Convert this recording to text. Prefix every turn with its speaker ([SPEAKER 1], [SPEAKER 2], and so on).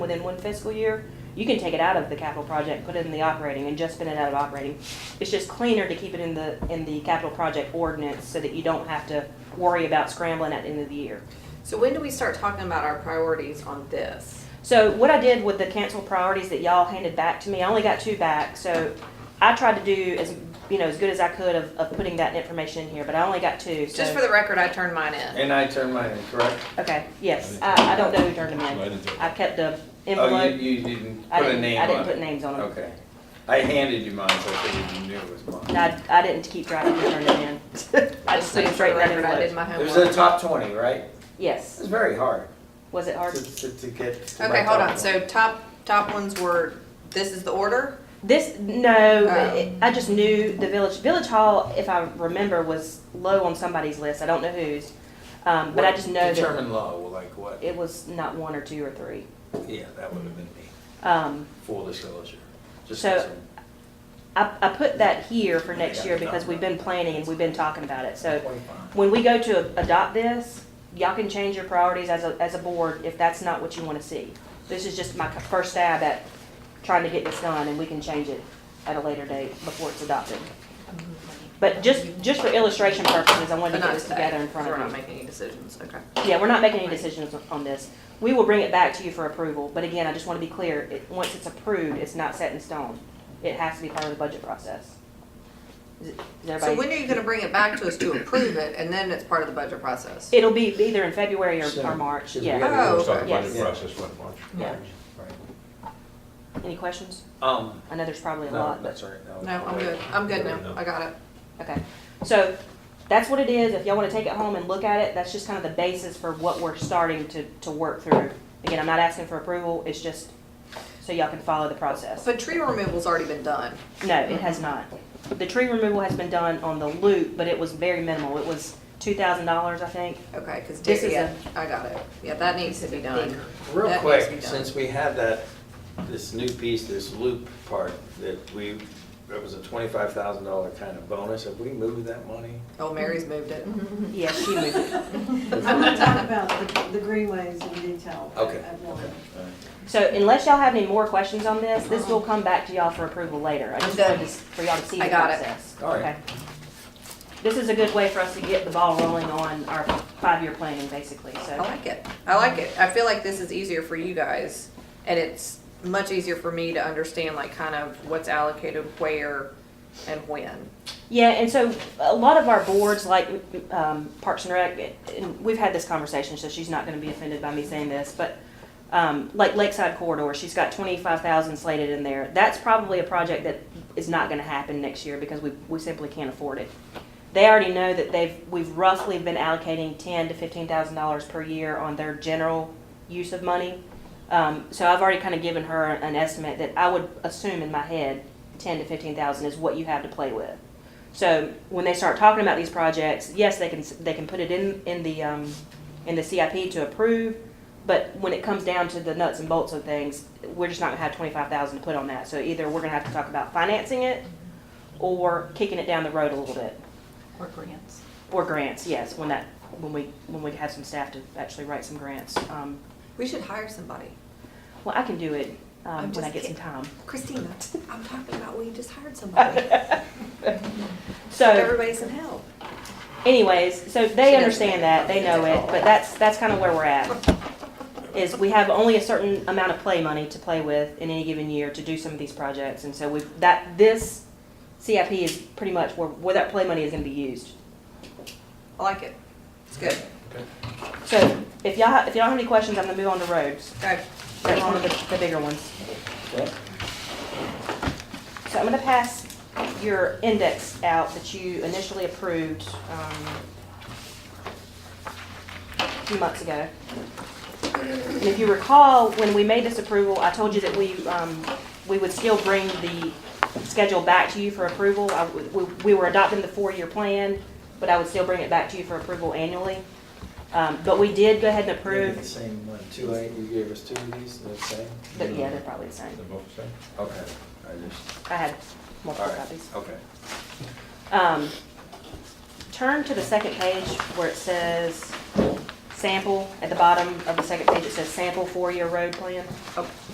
[SPEAKER 1] within one fiscal year, you can take it out of the capital project, put it in the operating, and just spend it out of operating. It's just cleaner to keep it in the, in the capital project ordinance, so that you don't have to worry about scrambling at the end of the year.
[SPEAKER 2] So when do we start talking about our priorities on this?
[SPEAKER 1] So what I did with the council priorities that y'all handed back to me, I only got two back, so I tried to do as, you know, as good as I could of, of putting that information in here, but I only got two, so.
[SPEAKER 2] Just for the record, I turned mine in.
[SPEAKER 3] And I turned mine in, correct?
[SPEAKER 1] Okay, yes, I, I don't know who turned them in. I kept the
[SPEAKER 3] Oh, you,
[SPEAKER 1] envelope,
[SPEAKER 3] you didn't
[SPEAKER 1] I
[SPEAKER 3] put a
[SPEAKER 1] didn't,
[SPEAKER 3] name
[SPEAKER 1] I
[SPEAKER 3] on it?
[SPEAKER 1] didn't put names on them.
[SPEAKER 3] Okay. I handed you mine, so I figured you knew it was
[SPEAKER 1] And
[SPEAKER 3] mine.
[SPEAKER 1] I, I didn't keep track of who turned them in. I just
[SPEAKER 2] Just so
[SPEAKER 1] put
[SPEAKER 2] you
[SPEAKER 1] it
[SPEAKER 2] for
[SPEAKER 1] straight
[SPEAKER 2] the
[SPEAKER 1] in that
[SPEAKER 2] record, I did
[SPEAKER 1] envelope.
[SPEAKER 2] my
[SPEAKER 3] It was in the
[SPEAKER 2] homework.
[SPEAKER 3] top twenty, right? It
[SPEAKER 1] Yes.
[SPEAKER 3] was very hard
[SPEAKER 1] Was it
[SPEAKER 3] to,
[SPEAKER 1] hard?
[SPEAKER 3] to, to get. to my
[SPEAKER 2] Okay, hold
[SPEAKER 3] top
[SPEAKER 2] on. So
[SPEAKER 3] 20.
[SPEAKER 2] top, top ones were, this is the order?
[SPEAKER 1] This, no, it- I just knew the village, Village Hall, if I remember, was low on somebody's list. I don't know whose. Um, but I
[SPEAKER 3] What
[SPEAKER 1] just know that
[SPEAKER 3] Determined low, like what?
[SPEAKER 1] it was not one or two or three.
[SPEAKER 3] Yeah, that would have been me,
[SPEAKER 1] Um,
[SPEAKER 3] full disclosure. Just
[SPEAKER 1] So-
[SPEAKER 3] as
[SPEAKER 1] I, I put that here for next year because we've been planning and we've been talking about it.
[SPEAKER 3] a
[SPEAKER 1] So
[SPEAKER 3] point five.
[SPEAKER 1] when we go to adopt this, y'all can change your priorities as a, as a board if that's not what you want to see. This is just my first stab at trying to get this done, and we can change it at a later date before it's adopted. But just, just for illustration purposes, I wanted
[SPEAKER 2] But
[SPEAKER 1] to get
[SPEAKER 2] not
[SPEAKER 1] this
[SPEAKER 2] today,
[SPEAKER 1] together in
[SPEAKER 2] 'cause
[SPEAKER 1] front
[SPEAKER 2] we're not
[SPEAKER 1] of you.
[SPEAKER 2] making any decisions, okay.
[SPEAKER 1] Yeah, we're not making any decisions on this. We will bring it back to you for approval, but again, I just want to be clear, it, once it's approved, it's not set in stone. It has to be part of the budget process. Is it- is
[SPEAKER 2] So
[SPEAKER 1] everybody?
[SPEAKER 2] when are you gonna bring it back to us to approve it, and then it's part of the budget process?
[SPEAKER 1] It'll be either in February or, or
[SPEAKER 3] Soon.
[SPEAKER 1] March,
[SPEAKER 3] Should we
[SPEAKER 1] yeah,
[SPEAKER 3] have-
[SPEAKER 2] Oh,
[SPEAKER 4] We'll start
[SPEAKER 2] okay.
[SPEAKER 4] the budget
[SPEAKER 3] Yes.
[SPEAKER 4] process what, March?
[SPEAKER 1] yeah.
[SPEAKER 3] Right.
[SPEAKER 1] Any questions?
[SPEAKER 3] Um,
[SPEAKER 1] I know there's probably a
[SPEAKER 3] no,
[SPEAKER 1] lot, but,
[SPEAKER 3] that's all right. that was
[SPEAKER 2] No, I'm
[SPEAKER 3] correct.
[SPEAKER 2] good. I'm good now. I got it.
[SPEAKER 1] okay. So, that's what it is, if y'all wanna take it home and look at it, that's just kind of the basis for what we're starting to, to work through. Again, I'm not asking for approval, it's just so y'all can follow the process.
[SPEAKER 2] But tree removal's already been done.
[SPEAKER 1] No, it has not. The tree removal has been done on the loop, but it was very minimal, it was two thousand dollars, I think.
[SPEAKER 2] Okay, cause
[SPEAKER 1] This is
[SPEAKER 2] Dave, yeah, I got it. Yeah, that needs to be done.
[SPEAKER 3] Real
[SPEAKER 2] That needs to be
[SPEAKER 3] quick,
[SPEAKER 2] done.
[SPEAKER 3] since we had that, this new piece, this loop part, that we, that was a twenty-five thousand dollar kind of bonus, have we moved that money?
[SPEAKER 2] Oh, Mary's moved it.
[SPEAKER 1] Yeah, she moved it.
[SPEAKER 5] I'm gonna talk about the, the greenways in detail. at-
[SPEAKER 3] Okay.
[SPEAKER 5] at one.
[SPEAKER 3] Uh,
[SPEAKER 1] So unless y'all have any more questions on this, this will come back to y'all for approval later. I just
[SPEAKER 2] I'm
[SPEAKER 1] wanted
[SPEAKER 2] good.
[SPEAKER 1] to, s- for y'all to see the
[SPEAKER 2] I got it.
[SPEAKER 1] process.
[SPEAKER 3] All right.
[SPEAKER 1] Okay. This is a good way for us to get the ball rolling on our five-year planning, basically,
[SPEAKER 2] I
[SPEAKER 1] so.
[SPEAKER 2] like it. I like it. I feel like this is easier for you guys, and it's much easier for me to understand like kind of what's allocated where and when.
[SPEAKER 1] Yeah, and so a lot of our boards, like um, Parks and Rec, and we've had this conversation, so she's not gonna be offended by me saying this, but um, like Lakeside Corridor, she's got twenty-five thousand slated in there. That's probably a project that is not gonna happen next year because we, we simply can't afford it. They already know that they've, we've roughly been allocating ten to fifteen thousand dollars per year on their general use of money. Um, so I've already kind of given her an estimate that I would assume in my head, ten to fifteen thousand is what you have to play with. So when they start talking about these projects, yes, they can, they can put it in, in the, um, in the CIP to approve, but when it comes down to the nuts and bolts of things, we're just not gonna have twenty-five thousand to put on that. So either we're gonna have to talk about financing it or kicking it down the road a little bit.
[SPEAKER 6] Or grants.
[SPEAKER 1] Or grants, yes, when that, when we, when we have some staff to actually write some grants. Um,
[SPEAKER 2] We should hire somebody.
[SPEAKER 1] well, I can do it, um,
[SPEAKER 2] I'm
[SPEAKER 1] when I
[SPEAKER 2] just
[SPEAKER 1] get some
[SPEAKER 2] kid-
[SPEAKER 1] time.
[SPEAKER 2] Christina, I'm talking about we just hired somebody.
[SPEAKER 1] So
[SPEAKER 2] Everybody's in help.
[SPEAKER 1] anyways, so
[SPEAKER 2] She
[SPEAKER 1] they
[SPEAKER 2] doesn't
[SPEAKER 1] understand that, they know it, but that's, that's kind of where we're at. Is we have only a certain amount of play money to play with in any given year to do some of these projects. And so we've, that, this CIP is pretty much where, where that play money is gonna be used.
[SPEAKER 2] I like it. It's good.
[SPEAKER 1] So if y'all, ha- if y'all have any questions, I'm gonna move on to roads.
[SPEAKER 2] Okay.
[SPEAKER 1] That's one of the, the bigger ones.
[SPEAKER 3] Okay.
[SPEAKER 1] So I'm gonna pass your index out that you initially approved, um, a few months ago. And if you recall, when we made this approval, I told you that we, um, we would still bring the schedule back to you for approval. I, we, we were adopting the four-year plan, but I would still bring it back to you for approval annually. Um, but we did go ahead and
[SPEAKER 3] Maybe the
[SPEAKER 1] approve,
[SPEAKER 3] same one, two, eight, you gave us two of these, the same?
[SPEAKER 1] but yeah, they're probably the same.
[SPEAKER 4] They're both the same?
[SPEAKER 3] Okay, I just,
[SPEAKER 1] I had
[SPEAKER 3] all
[SPEAKER 1] multiple
[SPEAKER 3] right,
[SPEAKER 1] copies.
[SPEAKER 3] okay.
[SPEAKER 1] Um, turn to the second page where it says sample, at the bottom of the second page, it says sample four-year road plan.
[SPEAKER 2] Oh,